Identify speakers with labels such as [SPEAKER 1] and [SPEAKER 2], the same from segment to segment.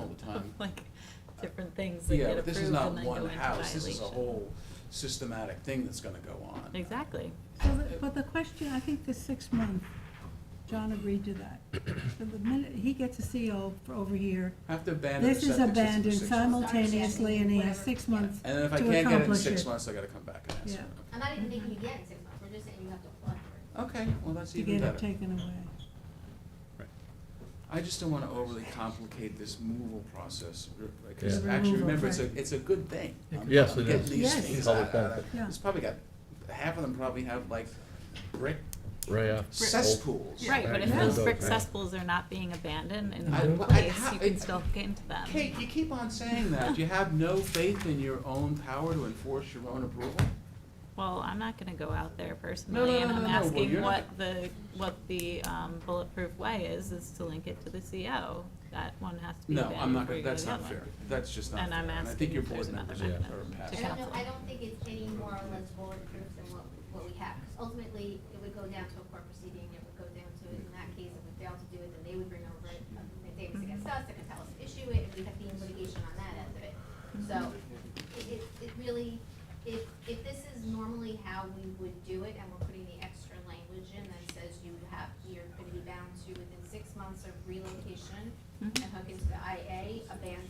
[SPEAKER 1] all the time.
[SPEAKER 2] Like, different things that
[SPEAKER 1] Yeah,
[SPEAKER 2] get
[SPEAKER 1] but
[SPEAKER 2] approved
[SPEAKER 1] this is
[SPEAKER 2] and then
[SPEAKER 1] not
[SPEAKER 2] go
[SPEAKER 1] one
[SPEAKER 2] into
[SPEAKER 1] house, this is a
[SPEAKER 2] violation.
[SPEAKER 1] whole systematic thing that's gonna go on.
[SPEAKER 2] Exactly.
[SPEAKER 3] So the- But the question, I think the six month, John agreed to that. So the minute he gets a CO for over here,
[SPEAKER 1] Have to abandon the
[SPEAKER 3] this
[SPEAKER 1] septic
[SPEAKER 3] is
[SPEAKER 1] system for
[SPEAKER 3] abandoned
[SPEAKER 1] six months.
[SPEAKER 3] simultaneously and he has six months
[SPEAKER 1] And then if I
[SPEAKER 3] to
[SPEAKER 1] can't get it in
[SPEAKER 3] accomplish
[SPEAKER 1] six
[SPEAKER 3] it.
[SPEAKER 1] months, I gotta come back and ask
[SPEAKER 3] Yeah.
[SPEAKER 1] for
[SPEAKER 4] I'm not even thinking you get in six months, we're just saying you have to apply for
[SPEAKER 1] it. Okay, well, that's
[SPEAKER 3] To
[SPEAKER 1] even
[SPEAKER 3] get it
[SPEAKER 1] better.
[SPEAKER 3] taken away.
[SPEAKER 1] I just don't wanna overly complicate this removal process, re-
[SPEAKER 5] Yeah.
[SPEAKER 1] because
[SPEAKER 3] The
[SPEAKER 1] actually,
[SPEAKER 3] removal,
[SPEAKER 1] remember, it's a,
[SPEAKER 3] right.
[SPEAKER 1] it's a good thing. I'm-
[SPEAKER 5] Yes,
[SPEAKER 1] I'm
[SPEAKER 5] it
[SPEAKER 1] getting
[SPEAKER 5] is.
[SPEAKER 1] these
[SPEAKER 3] Yes.
[SPEAKER 1] things
[SPEAKER 5] Public
[SPEAKER 1] out- out of-
[SPEAKER 5] benefit.
[SPEAKER 3] Yeah.
[SPEAKER 1] It's probably got, half of them probably have like brick
[SPEAKER 5] Right off.
[SPEAKER 1] cesspools.
[SPEAKER 2] Right, but if
[SPEAKER 3] Yeah.
[SPEAKER 2] those brick
[SPEAKER 5] Okay.
[SPEAKER 2] cesspools are not being abandoned and
[SPEAKER 1] I-
[SPEAKER 2] in
[SPEAKER 1] I-
[SPEAKER 2] place,
[SPEAKER 1] how-
[SPEAKER 2] you can
[SPEAKER 1] it-
[SPEAKER 2] still get into them.
[SPEAKER 1] Kate, you keep on saying that. You have no faith in your own power to enforce your own approval?
[SPEAKER 2] Well, I'm not gonna go out there personally,
[SPEAKER 1] no,
[SPEAKER 2] and
[SPEAKER 1] no,
[SPEAKER 2] I'm
[SPEAKER 1] no, no, well,
[SPEAKER 2] asking
[SPEAKER 1] you're not-
[SPEAKER 2] what the, what the um, bulletproof way is, is to link it to the CO. That one has to be
[SPEAKER 1] No,
[SPEAKER 2] abandoned
[SPEAKER 1] I'm not,
[SPEAKER 2] before
[SPEAKER 1] gonna
[SPEAKER 2] you go to
[SPEAKER 1] that's
[SPEAKER 2] the other one.
[SPEAKER 1] not fair. That's just not
[SPEAKER 2] And
[SPEAKER 1] fair.
[SPEAKER 2] I'm
[SPEAKER 1] And I
[SPEAKER 2] asking
[SPEAKER 1] think
[SPEAKER 2] if
[SPEAKER 1] your board
[SPEAKER 2] there's another
[SPEAKER 1] members
[SPEAKER 2] To
[SPEAKER 1] are are
[SPEAKER 4] it.
[SPEAKER 5] Yeah.
[SPEAKER 4] I
[SPEAKER 1] passing.
[SPEAKER 4] don't know,
[SPEAKER 2] counsel.
[SPEAKER 4] I don't think it's any more or less bulletproof than what, what we have, 'cause ultimately, it would go down to a court proceeding, it would go down to, in that case, if we fail to do it, then they would bring over it, if they was against us, they could tell us to issue it, and we'd have to be in litigation on that end of it. So,
[SPEAKER 1] Mm-hmm.
[SPEAKER 4] it, it, it really, if, if this is normally how we would do it, and we're putting the extra language in that says you have, you're gonna be bound to within six months of relocation,
[SPEAKER 2] Mhm.
[SPEAKER 4] and hook into the IA, abandon.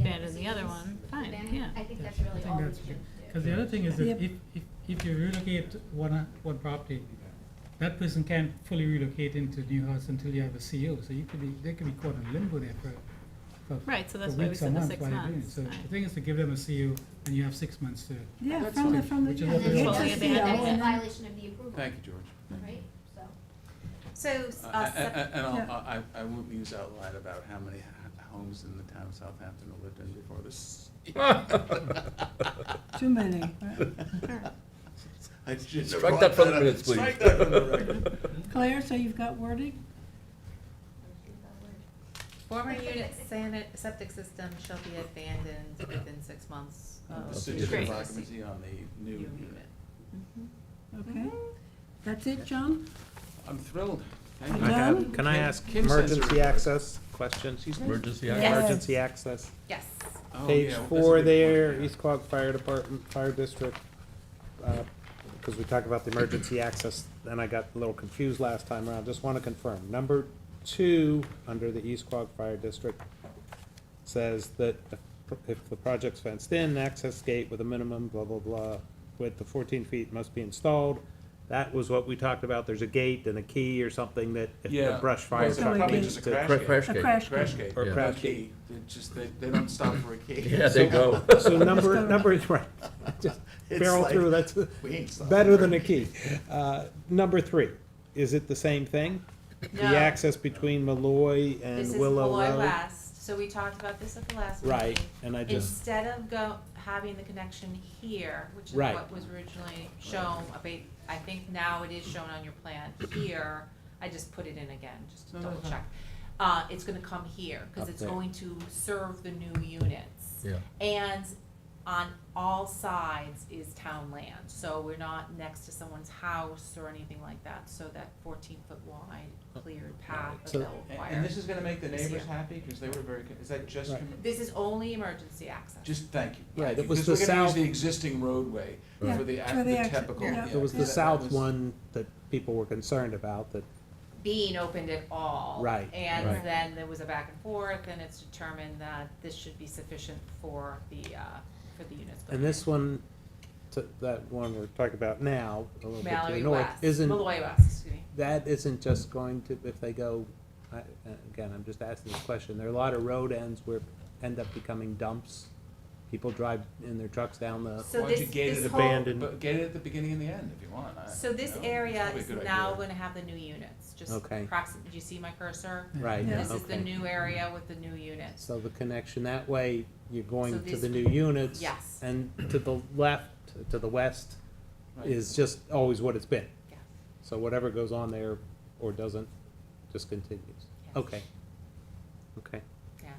[SPEAKER 2] Abandon the other one, fine, yeah.
[SPEAKER 4] I think that's really
[SPEAKER 6] I think
[SPEAKER 4] all we
[SPEAKER 6] that's
[SPEAKER 4] should do.
[SPEAKER 6] true. Because the other thing is
[SPEAKER 3] Yep.
[SPEAKER 6] that if, if, if you relocate one, uh, one property, that person can't fully relocate into new house until you have a CO, so you could be, they could be caught in limbo there for, for
[SPEAKER 2] Right, so
[SPEAKER 6] for
[SPEAKER 2] that's why we
[SPEAKER 6] weeks or
[SPEAKER 2] said the
[SPEAKER 6] months
[SPEAKER 2] six
[SPEAKER 6] while you're doing it.
[SPEAKER 2] months,
[SPEAKER 6] So
[SPEAKER 2] right.
[SPEAKER 6] the thing is to give them a CO and you have six months to,
[SPEAKER 3] Yeah,
[SPEAKER 1] that's
[SPEAKER 3] from the,
[SPEAKER 1] fine.
[SPEAKER 3] from the,
[SPEAKER 6] Which is
[SPEAKER 3] yeah,
[SPEAKER 6] what they
[SPEAKER 3] he
[SPEAKER 4] And
[SPEAKER 2] want.
[SPEAKER 3] gets a
[SPEAKER 4] then
[SPEAKER 2] Fully abandoned.
[SPEAKER 3] CO
[SPEAKER 4] it's that's a
[SPEAKER 3] and then,
[SPEAKER 4] violation of the approval.
[SPEAKER 1] Thank you, George.
[SPEAKER 4] Right, so.
[SPEAKER 7] So,
[SPEAKER 1] Uh,
[SPEAKER 7] uh,
[SPEAKER 1] a- a- And I'll-
[SPEAKER 3] Yeah.
[SPEAKER 1] I, I won't muse out loud about how many h- homes in the town of Southampton I lived in before this.
[SPEAKER 3] too many, right?
[SPEAKER 1] I just
[SPEAKER 5] Strike
[SPEAKER 1] brought
[SPEAKER 5] that from the
[SPEAKER 1] up.
[SPEAKER 5] minutes, please.
[SPEAKER 1] Strike that from the record.
[SPEAKER 2] Oh,
[SPEAKER 3] Claire, so you've got wording?
[SPEAKER 7] former unit sanit, septic system shall be abandoned within six months
[SPEAKER 1] The
[SPEAKER 7] of.
[SPEAKER 1] certificate
[SPEAKER 2] Great.
[SPEAKER 1] of occupancy on the new
[SPEAKER 7] New
[SPEAKER 1] unit.
[SPEAKER 7] unit.
[SPEAKER 2] Mm-hmm.
[SPEAKER 3] Okay. That's it, John?
[SPEAKER 1] I'm thrilled. Thank
[SPEAKER 3] You're
[SPEAKER 1] you.
[SPEAKER 8] I have,
[SPEAKER 3] Done?
[SPEAKER 8] can I
[SPEAKER 1] Kim-
[SPEAKER 8] ask
[SPEAKER 1] Kim says
[SPEAKER 8] emergency
[SPEAKER 1] her-
[SPEAKER 8] access question?
[SPEAKER 5] Emergency
[SPEAKER 3] Yes.
[SPEAKER 5] access.
[SPEAKER 8] Emergency access.
[SPEAKER 7] Yes,
[SPEAKER 1] Oh, yeah,
[SPEAKER 8] Page
[SPEAKER 1] well, that's a
[SPEAKER 8] four
[SPEAKER 1] good point,
[SPEAKER 8] there,
[SPEAKER 1] yeah.
[SPEAKER 8] East Quogue Fire Department, Fire District. Because we talked about the emergency access, and I got a little confused last time around. Just want to confirm. Number two, under the East Quogue Fire District, says that if the project's fenced in, access gate with a minimum blah, blah, blah, width of fourteen feet must be installed. That was what we talked about. There's a gate and a key or something that if
[SPEAKER 1] Yeah.
[SPEAKER 8] the brush
[SPEAKER 1] Well,
[SPEAKER 8] fire
[SPEAKER 1] it's
[SPEAKER 8] truck
[SPEAKER 3] probably
[SPEAKER 8] needs
[SPEAKER 1] just a
[SPEAKER 8] to
[SPEAKER 1] crash
[SPEAKER 5] Cra-
[SPEAKER 1] gate.
[SPEAKER 5] Crash
[SPEAKER 3] A
[SPEAKER 5] gate.
[SPEAKER 3] crash
[SPEAKER 1] Crash
[SPEAKER 3] gate.
[SPEAKER 1] gate.
[SPEAKER 8] Or
[SPEAKER 1] No
[SPEAKER 8] crash
[SPEAKER 1] key. They just, they, they don't stop for a key.
[SPEAKER 5] Yeah, they go.
[SPEAKER 8] So number, number, right, just
[SPEAKER 1] It's
[SPEAKER 8] barrel
[SPEAKER 1] like-
[SPEAKER 8] through, that's
[SPEAKER 1] We ain't stopping
[SPEAKER 8] better
[SPEAKER 1] for
[SPEAKER 8] than a key. Uh, Number three, is it the same thing? The
[SPEAKER 7] No.
[SPEAKER 8] access between Malloy and
[SPEAKER 7] this is
[SPEAKER 8] Willow
[SPEAKER 7] Malloy
[SPEAKER 8] Road?
[SPEAKER 7] West, so we talked about this at the last meeting.
[SPEAKER 8] Right, and I just,
[SPEAKER 7] Instead of go, having the connection here, which is
[SPEAKER 8] Right.
[SPEAKER 7] what was originally shown, I think, I think now it is shown on your plan here, I just put it in again, just to
[SPEAKER 1] No, no,
[SPEAKER 7] double
[SPEAKER 1] no.
[SPEAKER 7] check. Uh, it's gonna come here, cause
[SPEAKER 8] Up
[SPEAKER 7] it's
[SPEAKER 8] there.
[SPEAKER 7] going to serve the new units.
[SPEAKER 5] Yeah.
[SPEAKER 7] And on all sides is town land, so we're not next to someone's house or anything like that, so that fourteen foot wide cleared path
[SPEAKER 8] So-
[SPEAKER 7] that will
[SPEAKER 1] And,
[SPEAKER 7] require.
[SPEAKER 1] and this is gonna make the
[SPEAKER 7] This
[SPEAKER 1] neighbors
[SPEAKER 7] year.
[SPEAKER 1] happy, cause they were very, con- is that just,
[SPEAKER 8] Right.
[SPEAKER 1] com-
[SPEAKER 7] This is only emergency access.
[SPEAKER 1] just thank you.
[SPEAKER 8] Right,
[SPEAKER 1] Thank
[SPEAKER 8] it
[SPEAKER 1] you.
[SPEAKER 8] was
[SPEAKER 1] 'Cause
[SPEAKER 8] the
[SPEAKER 1] We're gonna use
[SPEAKER 8] south-
[SPEAKER 1] the existing roadway
[SPEAKER 3] Yeah,
[SPEAKER 1] for the,
[SPEAKER 3] for
[SPEAKER 1] ac-
[SPEAKER 3] the
[SPEAKER 1] the
[SPEAKER 3] exit,
[SPEAKER 1] typical,
[SPEAKER 3] yeah.
[SPEAKER 1] yeah.
[SPEAKER 8] it was
[SPEAKER 1] that-
[SPEAKER 8] the
[SPEAKER 1] that
[SPEAKER 8] south
[SPEAKER 1] was-
[SPEAKER 8] one that people were concerned about, that,
[SPEAKER 7] being opened at all.
[SPEAKER 8] Right,
[SPEAKER 5] right.
[SPEAKER 7] And then there was a back and forth, and it's determined that this should be sufficient for the, uh, for the units.
[SPEAKER 8] and this one, to- that one we're talking about now, a little bit to the
[SPEAKER 7] Mallory
[SPEAKER 8] north,
[SPEAKER 7] West,
[SPEAKER 8] isn't,
[SPEAKER 7] Malloy West, excuse me.
[SPEAKER 8] that isn't just going to, if they go, I- again, I'm just asking this question, there are a lot of road ends where end up becoming dumps. People drive in their trucks down the
[SPEAKER 7] So
[SPEAKER 1] Why don't
[SPEAKER 7] this,
[SPEAKER 1] you gate
[SPEAKER 7] this
[SPEAKER 1] it
[SPEAKER 7] whole,
[SPEAKER 8] abandoned?
[SPEAKER 1] But get it at the beginning and the end if you want. I-
[SPEAKER 7] so
[SPEAKER 1] you know,
[SPEAKER 7] this
[SPEAKER 1] Uh, it's
[SPEAKER 7] area
[SPEAKER 1] probably a
[SPEAKER 7] is
[SPEAKER 1] good
[SPEAKER 7] now
[SPEAKER 1] idea.
[SPEAKER 7] gonna have the new units, just
[SPEAKER 8] Okay.
[SPEAKER 7] proxi- do you see my cursor?
[SPEAKER 8] Right,
[SPEAKER 3] Yeah.
[SPEAKER 7] This is the
[SPEAKER 8] okay.
[SPEAKER 7] new area with the new units.
[SPEAKER 8] So the connection, that way, you're
[SPEAKER 7] So
[SPEAKER 8] going to
[SPEAKER 7] this-
[SPEAKER 8] the new units.
[SPEAKER 7] Yes.
[SPEAKER 8] And to the left, to the west,
[SPEAKER 1] Right.
[SPEAKER 8] is just always what it's been.
[SPEAKER 7] Yeah.
[SPEAKER 8] So whatever goes on there or doesn't, just continues.
[SPEAKER 7] Yeah.
[SPEAKER 8] Okay. Okay,